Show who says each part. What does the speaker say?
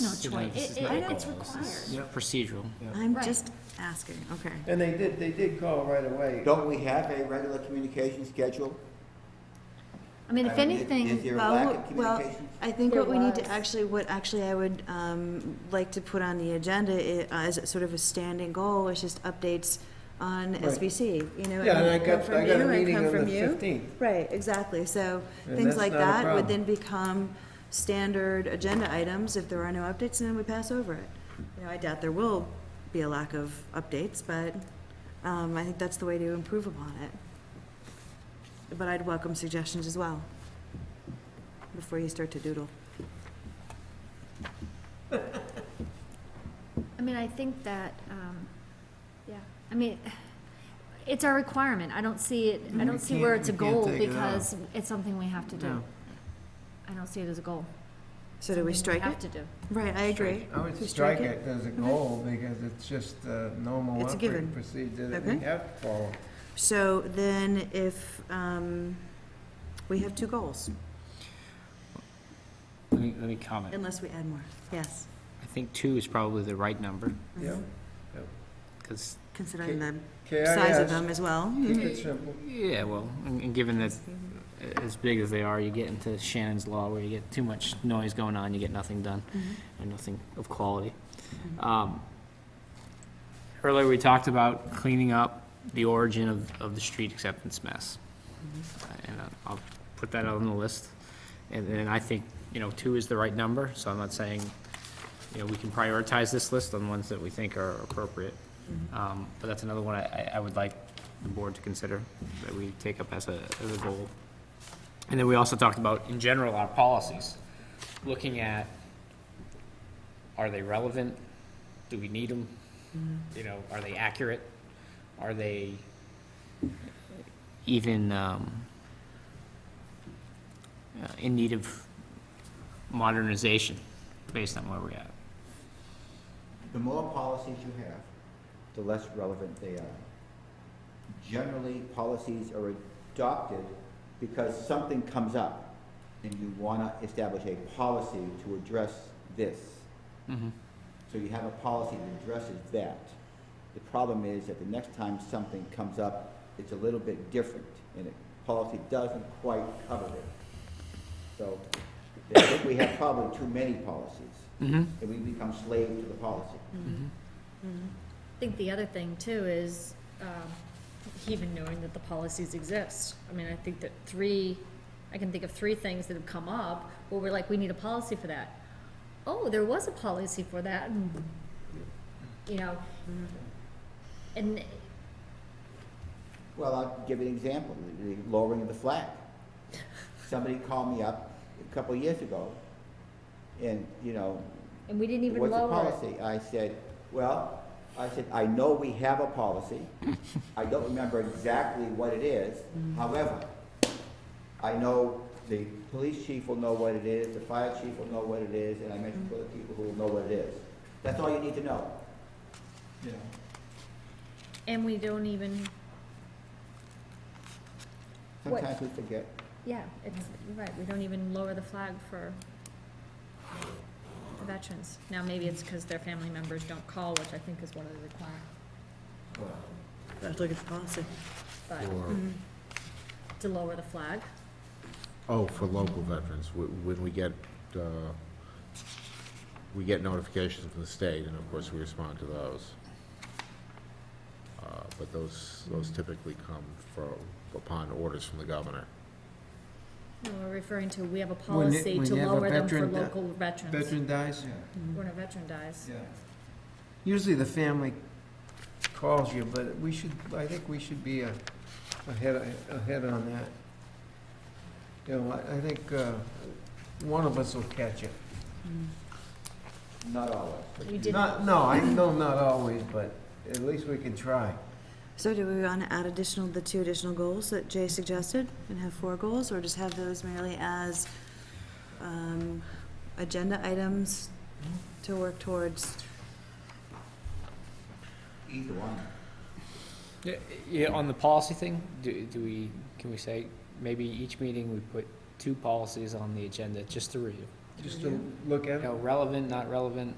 Speaker 1: No
Speaker 2: You know,
Speaker 1: choice.
Speaker 2: this
Speaker 1: It-
Speaker 2: is not
Speaker 1: it-
Speaker 2: a
Speaker 1: it's
Speaker 2: goal. This is
Speaker 3: required.
Speaker 2: Procedural.
Speaker 3: I'm
Speaker 1: Right.
Speaker 3: just asking, okay.
Speaker 4: And they did, they did call right away.
Speaker 5: Don't we have a regular communication schedule?
Speaker 1: I mean, if
Speaker 5: I mean, is-
Speaker 1: anything,
Speaker 5: is there a
Speaker 3: Well,
Speaker 5: lack of
Speaker 3: well,
Speaker 5: communication?
Speaker 3: I think
Speaker 6: There
Speaker 3: what we need to
Speaker 6: was.
Speaker 3: actually, what actually I would um, like to put on the agenda i- uh, as sort of a standing goal is just updates on
Speaker 4: Right.
Speaker 3: SBC, you know.
Speaker 4: Yeah, and I
Speaker 3: come
Speaker 4: got,
Speaker 3: from
Speaker 4: I got a
Speaker 3: you,
Speaker 4: meeting
Speaker 3: come
Speaker 4: on the
Speaker 3: from you.
Speaker 4: fifteenth.
Speaker 3: Right, exactly, so
Speaker 4: And
Speaker 3: things
Speaker 4: that's
Speaker 3: like
Speaker 4: not a
Speaker 3: that
Speaker 4: problem.
Speaker 3: would then become standard agenda items, if there are no updates, then we pass over it. You know, I doubt there will be a lack of updates, but um, I think that's the way to improve upon it. But I'd welcome suggestions as well, before you start to doodle.
Speaker 1: I mean, I think that, um, yeah, I mean, it's our requirement. I don't see it, I
Speaker 3: Mm-hmm.
Speaker 4: We
Speaker 1: don't see where
Speaker 4: can't-
Speaker 1: it's a
Speaker 4: we can't
Speaker 1: goal
Speaker 4: take it out.
Speaker 1: because it's something we have to do.
Speaker 4: No.
Speaker 1: I don't see it as a goal.
Speaker 3: So do
Speaker 1: Something
Speaker 3: we strike
Speaker 1: Have
Speaker 3: it?
Speaker 1: to do.
Speaker 3: Right, I agree.
Speaker 4: I would
Speaker 3: We
Speaker 4: strike it as a goal because it's just a normal
Speaker 3: It's a
Speaker 4: operating
Speaker 3: given.
Speaker 4: procedure that we
Speaker 3: Okay.
Speaker 4: have to follow.
Speaker 3: So then if, um, we have two goals,
Speaker 2: Let me, let me comment.
Speaker 3: unless we add more, yes,
Speaker 2: I think two is probably the right number,
Speaker 4: Yep.
Speaker 2: because,
Speaker 3: considering the size of them Mm-hmm.
Speaker 4: KIS,
Speaker 3: as well.
Speaker 4: keep it simple.
Speaker 2: yeah, well, and and given that uh, as big as they are, you get into Shannon's Law where you get too much noise going on, you get nothing done,
Speaker 3: Mhm.
Speaker 2: and nothing of quality. Um, Earlier, we talked about cleaning up the origin of, of the street acceptance mess. Uh, And I'll- I'll put that on the list. And then I think, you know, two is the right number, so I'm not saying, you know, we can prioritize this list on ones that we think are appropriate. Um, But that's another one I, I- I would like the board to consider, that we take up as a, as a goal. And then we also talked about, in general, our policies, looking at, are they relevant? Do we need them? You know, are they accurate? Are they even um, uh, in need of modernization based on where we're at?
Speaker 5: The more policies you have, the less relevant they are. Generally, policies are adopted because something comes up and you want to establish a policy to address this. So you have a policy that addresses that. The problem is that the next time something comes up, it's a little bit different and it, policy doesn't quite cover it. So I think we have probably too many policies
Speaker 2: Mm-hmm.
Speaker 5: and we become slave to the policy.
Speaker 6: Hmm. I think the other thing too is um, even knowing that the policies exist. I mean, I think that three, I can think of three things that have come up where we're like, we need a policy for that. Oh, there was a policy for that, and, you know,
Speaker 3: Mm-hmm.
Speaker 6: and
Speaker 5: Well, I'll give you an example, the the lowering of the flag. Somebody called me up a couple of years ago, and, you know,
Speaker 6: and we didn't even
Speaker 5: what's the
Speaker 6: lower it.
Speaker 5: policy? I said, well, I said, I know we have a policy. I don't remember exactly what it is.
Speaker 6: Hmm.
Speaker 5: However, I know the police chief will know what it is, the fire chief will know what it is, and I
Speaker 6: Hmm.
Speaker 5: mentioned for the people who will know what it is. That's all you need to know. You know,
Speaker 6: And we don't even, What-
Speaker 5: Sometimes we forget.
Speaker 6: yeah, it's, you're right, we don't even lower the flag for for veterans. Now, maybe it's because their family members don't call, which I think is one of the requirements.
Speaker 3: Let's look at the policy.
Speaker 6: but to lower the flag.
Speaker 7: Oh, for local veterans, wh- when we get, uh, we get notifications from the state, and of course, we respond to those. Uh, But those, those typically come from, upon orders from the governor.
Speaker 6: No, we're referring to, we have a
Speaker 4: When you-
Speaker 6: policy
Speaker 4: when
Speaker 6: to
Speaker 4: you have a
Speaker 6: lower them for
Speaker 4: veteran that-
Speaker 6: local veterans.
Speaker 4: Veteran dies,
Speaker 3: Mm-hmm.
Speaker 6: When a veteran dies.
Speaker 4: yeah. Usually the family calls you, but we should, I think we should be a- ahead, ahead on that. You know, I, I think, uh, one of us will catch it.
Speaker 3: Mm-hmm.
Speaker 5: Not always.
Speaker 6: We did,
Speaker 4: Not, no, I know not always, but at least we can try.
Speaker 3: So do we want to add additional, the two additional goals that Jay suggested and have four goals, or just have those merely as um, agenda items to work towards?
Speaker 5: Either one.
Speaker 2: Yeah, yeah, on the policy thing, do, do we, can we say, maybe each meeting we put two policies on the agenda just to review?
Speaker 4: just to look at it?
Speaker 2: You know, relevant, not relevant,